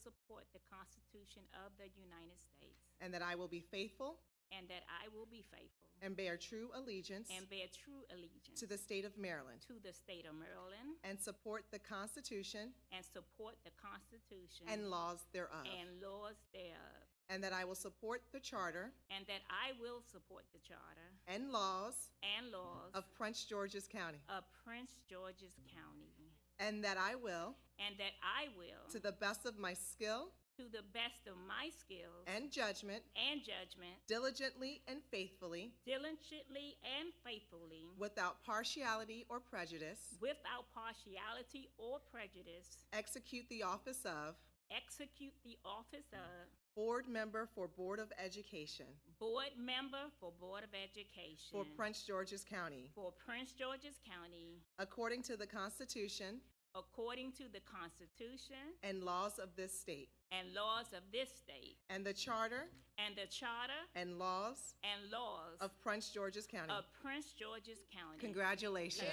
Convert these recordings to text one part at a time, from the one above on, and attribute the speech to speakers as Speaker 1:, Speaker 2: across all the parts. Speaker 1: support the Constitution of the United States,
Speaker 2: and that I will be faithful
Speaker 1: and that I will be faithful
Speaker 2: and bear true allegiance
Speaker 1: and bear true allegiance
Speaker 2: to the state of Maryland
Speaker 1: to the state of Maryland
Speaker 2: and support the Constitution
Speaker 1: and support the Constitution
Speaker 2: and laws thereof,
Speaker 1: and laws thereof,
Speaker 2: and that I will support the charter
Speaker 1: and that I will support the Charter
Speaker 2: and laws
Speaker 1: and laws
Speaker 2: of Prince George's County,
Speaker 1: of Prince George's County,
Speaker 2: and that I will,
Speaker 1: and that I will,
Speaker 2: to the best of my skill
Speaker 1: to the best of my skills
Speaker 2: and judgment,
Speaker 1: and judgment,
Speaker 2: diligently and faithfully,
Speaker 1: diligently and faithfully,
Speaker 2: without partiality or prejudice,
Speaker 1: without partiality or prejudice,
Speaker 2: execute the office of
Speaker 1: execute the office of
Speaker 2: Board Member for Board of Education
Speaker 1: Board Member for Board of Education
Speaker 2: for Prince George's County,
Speaker 1: for Prince George's County
Speaker 2: according to the Constitution
Speaker 1: according to the Constitution
Speaker 2: and laws of this state,
Speaker 1: and laws of this state
Speaker 2: and the Charter
Speaker 1: and the Charter
Speaker 2: and laws
Speaker 1: and laws
Speaker 2: of Prince George's County.
Speaker 1: of Prince George's County.
Speaker 2: Congratulations.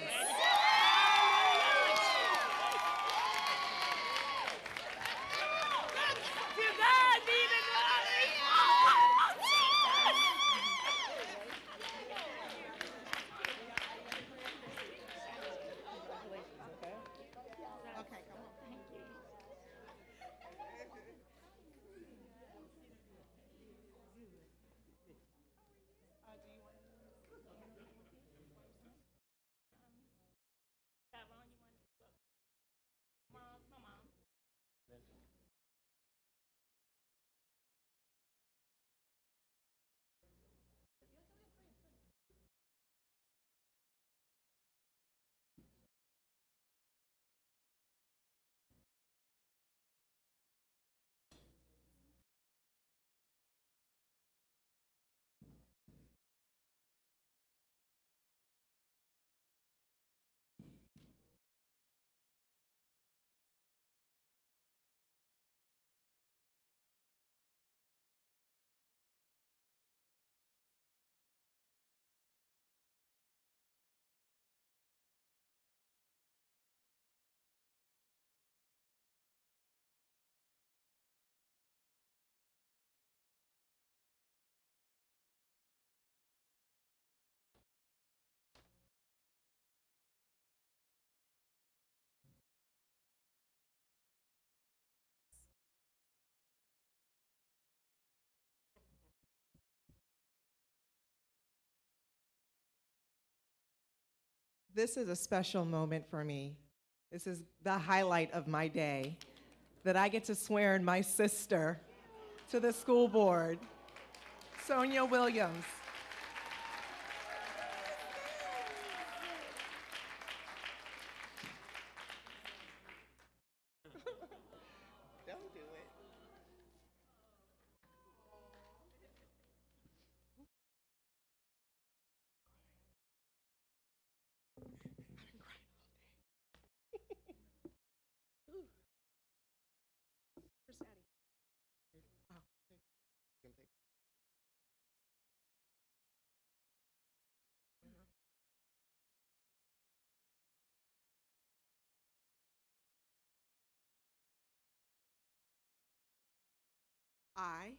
Speaker 1: To God be the glory. Oh, Jesus.
Speaker 2: Okay, come on.
Speaker 1: Tyrone, you want to go? Mom, come on.
Speaker 2: This is a special moment for me. This is the highlight of my day that I get to swear in my sister to the school board, Sonia Williams. Don't do it. I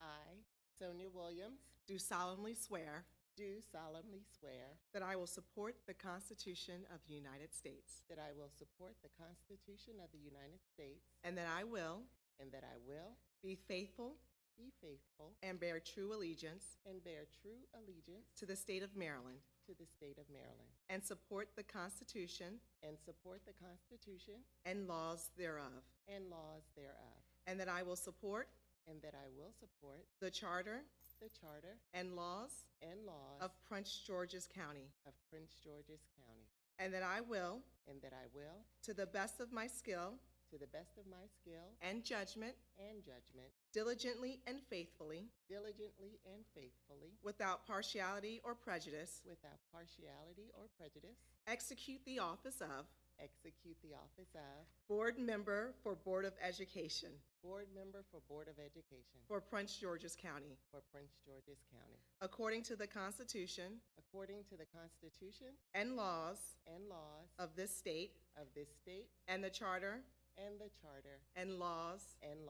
Speaker 3: I, Sonia Williams,
Speaker 2: do solemnly swear
Speaker 3: do solemnly swear
Speaker 2: that I will support the Constitution of the United States
Speaker 3: that I will support the Constitution of the United States
Speaker 2: and that I will
Speaker 3: and that I will
Speaker 2: be faithful
Speaker 3: be faithful
Speaker 2: and bear true allegiance
Speaker 3: and bear true allegiance
Speaker 2: to the state of Maryland
Speaker 3: to the state of Maryland
Speaker 2: and support the Constitution
Speaker 3: and support the Constitution
Speaker 2: and laws thereof,
Speaker 3: and laws thereof,
Speaker 2: and that I will support
Speaker 3: and that I will support
Speaker 2: the Charter
Speaker 3: the Charter
Speaker 2: and laws
Speaker 3: and laws
Speaker 2: of Prince George's County,
Speaker 3: of Prince George's County,
Speaker 2: and that I will,
Speaker 3: and that I will,
Speaker 2: to the best of my skill
Speaker 3: to the best of my skill
Speaker 2: and judgment,
Speaker 3: and judgment,
Speaker 2: diligently and faithfully,
Speaker 3: diligently and faithfully,
Speaker 2: without partiality or prejudice,
Speaker 3: without partiality or prejudice,
Speaker 2: execute the office of
Speaker 3: execute the office of
Speaker 2: Board Member for Board of Education
Speaker 3: Board Member for Board of Education
Speaker 2: for Prince George's County,
Speaker 3: for Prince George's County,
Speaker 2: according to the Constitution
Speaker 3: according to the Constitution
Speaker 2: and laws
Speaker 3: and laws
Speaker 2: of this state
Speaker 3: of this state
Speaker 2: and the Charter
Speaker 3: and the Charter
Speaker 2: and laws
Speaker 3: and